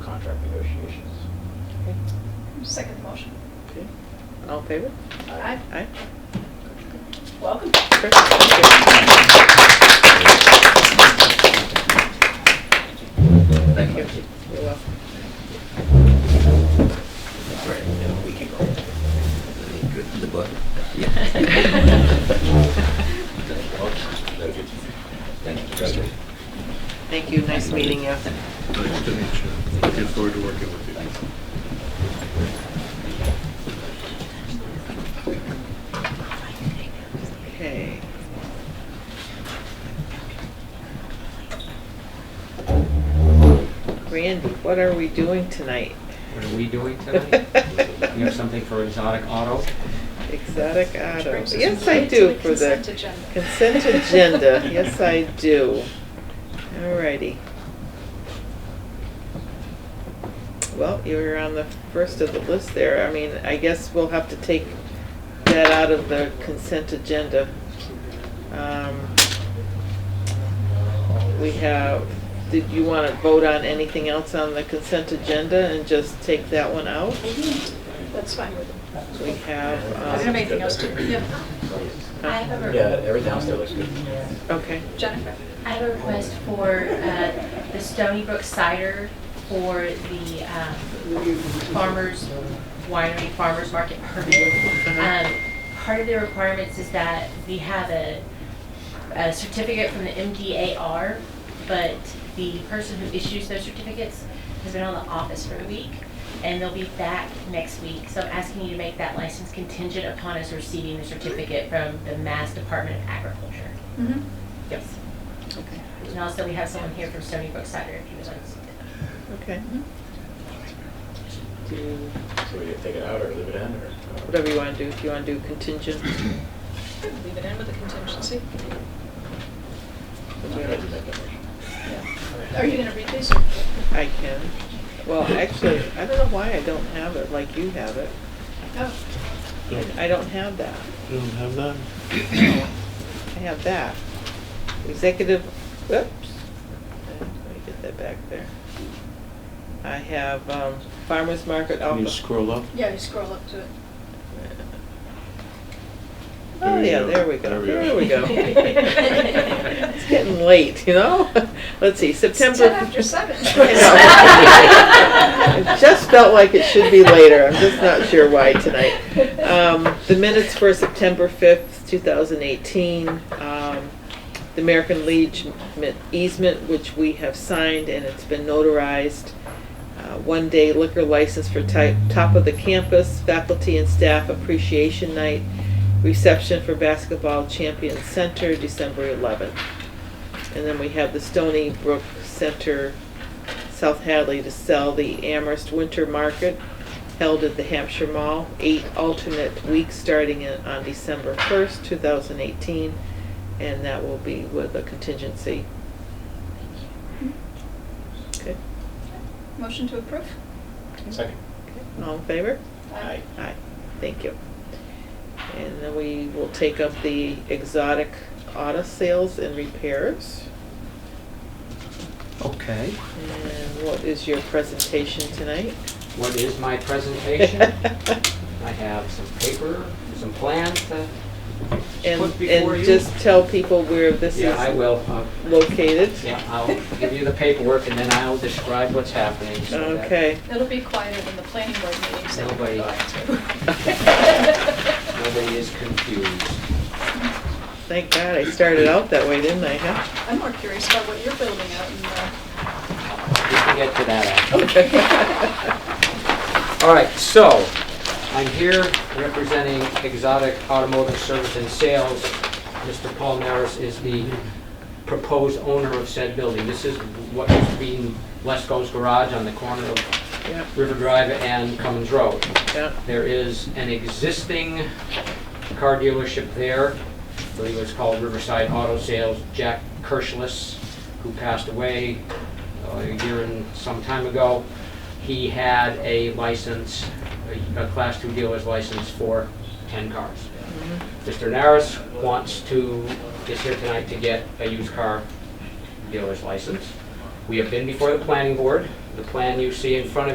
applications. Second motion. Okay. All in favor? Aye. Aye. Welcome. Sure. Thank you. Thank you. You're welcome. Good in the butt. Thank you. Thank you, nice meeting you. Nice to meet you. Looking forward to working with you. Okay. Randy, what are we doing tonight? What are we doing tonight? You have something for exotic auto? Exotic Which auto. brings us Yes, I right to do the for consent the agenda. consent agenda. Yes, I do. Alrighty. Well, you were on the first of the list there. I mean, I guess we'll have to take that out of the consent agenda. Um, We have, did you want to vote on anything else on the consent agenda and just take that one out? Mm-hmm. That's fine with me. We have, I don't have um, anything else to, yeah. I have Yeah, a, everything else there looks good. okay. Jennifer? I have a request for uh, the Stony Brook cider for the um, farmers, winery farmers market permit. Uh-huh. Um, Part of the requirements is that we have a a certificate from the MDAR, but the person who issues those certificates has been on the office for a week, and they'll be back next week. So I'm asking you to make that license contingent upon us receiving the certificate from the Mass Department of Agriculture. Mm-hmm. Yes. And also, we have someone here from Stony Brook Cider, if you would like to. Okay. Do, So we could take it out or leave it in or? uh, whatever you want to do, if you want to do contingent. Leave it in with the contingency. I'm ready to make that motion. Are you gonna read these? I can. Well, actually, I don't know why I don't have it like you have it. Oh, I I don't have that. You don't have that? I have that. Executive, whoops. Let me get that back there. I have um, farmer's market Can you office. scroll up? yeah, you scroll up to it. Oh, There you yeah, go. there we go, there There we we go. It's getting late, you know? Let's see, September. It's ten after seven. It just felt like it should be later, I'm just not sure why tonight. Um, The minutes for September 5th, 2018, um, the American Legion easement, which we have signed and it's been notarized. Uh, One-day liquor license for type, top of the campus, faculty and staff appreciation night, reception for basketball champion center, December 11th. And then we have the Stony Brook Center, South Hadley, to sell the Amherst Winter Market held at the Hampshire Mall, eight alternate weeks starting in- on December 1st, 2018, and that will be with a contingency. Okay, Motion to approve? Second. all in favor? Aye. Aye, thank you. And then we will take up the exotic auto sales and repairs. Okay. And what is your presentation tonight? What is my presentation? I have some paper, some plans to put And, before and you. just tell people where this Yeah, I is will. uh, located. Yeah, I'll give you the paperwork and then I'll describe what's happening. so that- Okay, It'll be quieter than the planning board meetings that we're Nobody. going to. Nobody is confused. thank God I started out that way, didn't I, huh? I'm more curious about what you're building out in uh, We can get to that after. Okay. Oh. All right, so I'm here representing Exotic Automotive Service and Sales. Mr. Paul Maris is the proposed owner of said building. This is what used to be Lesko's Garage on the corner of Yeah, River Drive and Cummins Road. yeah, There is an existing car dealership there. I believe it's called Riverside Auto Sales. Jack Kirschless, who passed away uh, a year and some time ago, he had a license, a a Class II dealer's license for 10 cars. Mr. Naris wants to, is here tonight to get a used car dealer's license. We have been before the planning board. The plan you see in front of